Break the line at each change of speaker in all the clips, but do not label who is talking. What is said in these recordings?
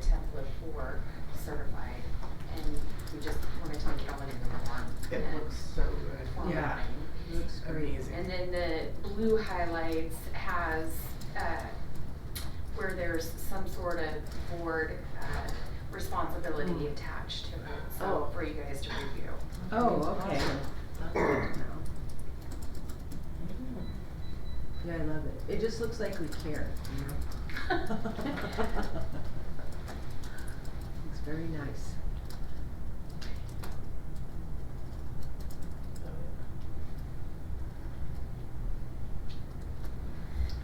to work certified, and we just wanna take it all in the form.
It
and
looks so good.
form
Yeah.
line.
Looks
Amazing.
And then the blue highlights has, uh, where there's some sort of board, uh, responsibility attached to it, so
Hmm. Oh.
for you guys to review.
Oh, okay. That's good to know. Yeah, I love it. It just looks like we care, you know? Looks very nice.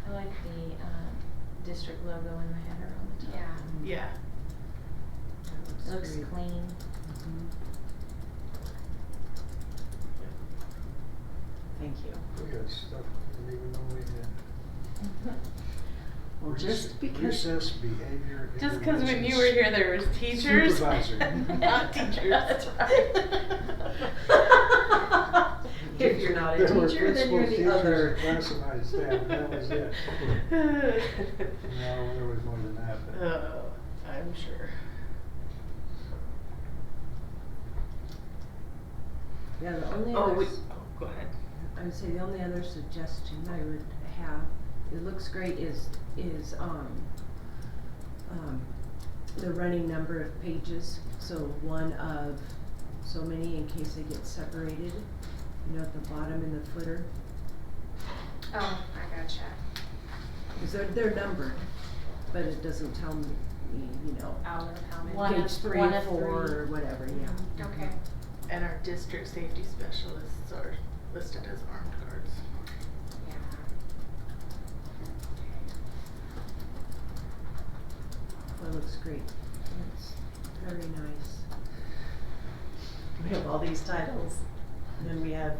I like the um, district logo and the header on the top.
Yeah.
Yeah.
It looks clean.
Mhm. Thank you.
We got stuff we didn't even know we had.
Well, just
Rec-
because,
Recess behavior.
Just because when you were here, there was teachers,
Supervisor.
not teachers.
That's
right.
if you're not a
There were
teacher, then you're
principal
the other.
teachers and Classified staff, and that was it. No, there was more than that, but
Uh,
Oh, I'm sure.
Yeah, the only
Oh,
other,
we,
s-
oh, go ahead.
I would say the only other suggestion I would have, it looks great, is, is, um, um, the running number of pages, so one of so many in case they get separated, you know, at the bottom in the footer,
Oh, I gotcha.
because they're, they're numbered, but it doesn't tell me, you know,
Hour of how many?
One
page
of-
three,
one of
four,
three.
or whatever, yeah.
Okay.
And our district safety specialists are listed as armed guards.
Yeah.
That looks great. That's very nice.
We have all these titles, and then we have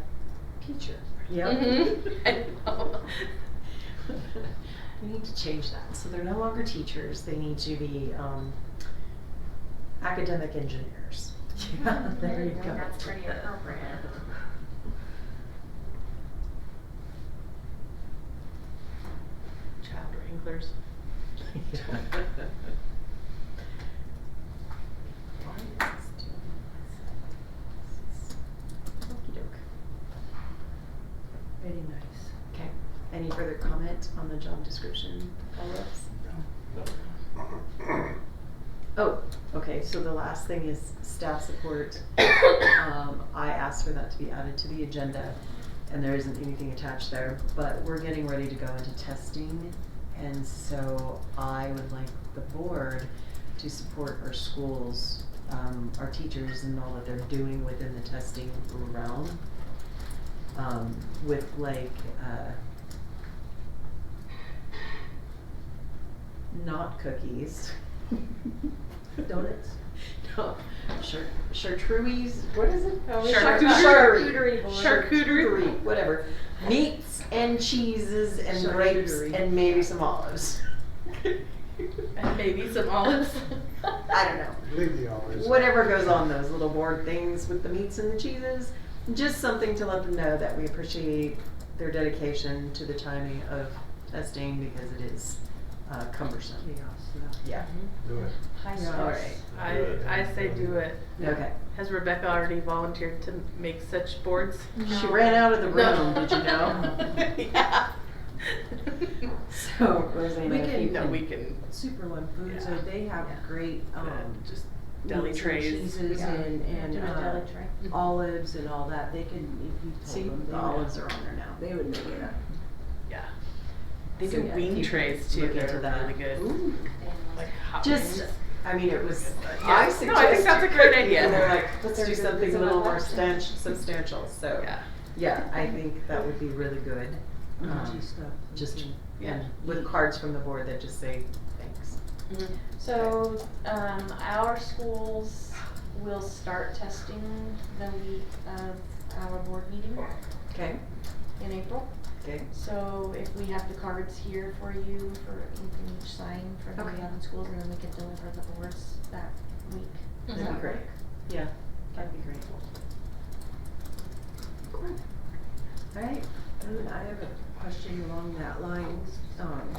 teacher.
Mm-hmm.
Mhm. I know.
We need to change that, so they're no longer teachers, they need to be, um, academic engineers. Yeah,
Mm-hmm.
there you go.
That's pretty appropriate.
Child wranglers.
Very nice.
Okay, any further comment on the job description, follow-ups? Oh, okay, so the last thing is staff support. Um, I asked for that to be added to the agenda, and there isn't anything attached there, but we're getting ready to go into testing. And so I would like the board to support our schools, um, our teachers and all that they're doing within the testing realm. Um, with like, uh, not cookies.
Donuts?
No, char- chartreuse. What is it? Oh, it's
Charcuterie.
Charcuterie. board.
Charcuterie.
Charcuterie, Whatever. Meats and cheeses and grapes
Charcuterie.
and maybe some olives.
And maybe some olives.
I don't know.
leave the hours.
Whatever goes on those little board things with the meats and the cheeses. Just something to let them know that we appreciate their dedication to the timing of testing because it is uh, cumbersome.
Chaos, yeah.
Yeah.
Do it.
High
Yeah.
All
stress.
right.
I, I say do it.
Okay.
Has Rebecca already volunteered to make such boards?
She
No.
ran out of the
No.
room, did you know?
yeah.
So, Rosanna,
We
if
can-
you
no, we can
Superone Foods,
Yeah.
so they have
Yeah.
great,
uh,
um,
just deli
meats and
trays.
cheeses
Yeah.
and, and,
Do a
uh,
deli tray.
olives and all that, they can, if you
Mm-hmm. See,
told them, they
the
would-
olives are on there now.
They would make it up.
Yeah. They
So,
do
yeah,
wing
keep
trays too.
looking
They're
into that.
really good.
Ooh,
Like hot
Just,
wings.
I mean, it was,
Yeah.
I
No, I
suggested.
think that's a great idea.
And they're like,
But
let's
they're
do
good-
something
it's
a little
about
more
that.
stan- substantial, so,
Yeah.
yeah, I think that would be really good. Um,
Crunchy Mm-hmm. stuff.
Just,
Mhm.
yeah, with cards from the board that just say, thanks.
So, um, our schools will start testing the week of our board meeting
Okay,
in April.
okay.
So if we have the cards here for you, for, you can each sign for the
Okay.
eleven schools, and then we can deliver the boards that week. Does
That'd be
that
great.
work?
Yeah, that'd be great. Cool.
All right, and I have a question along that line, um,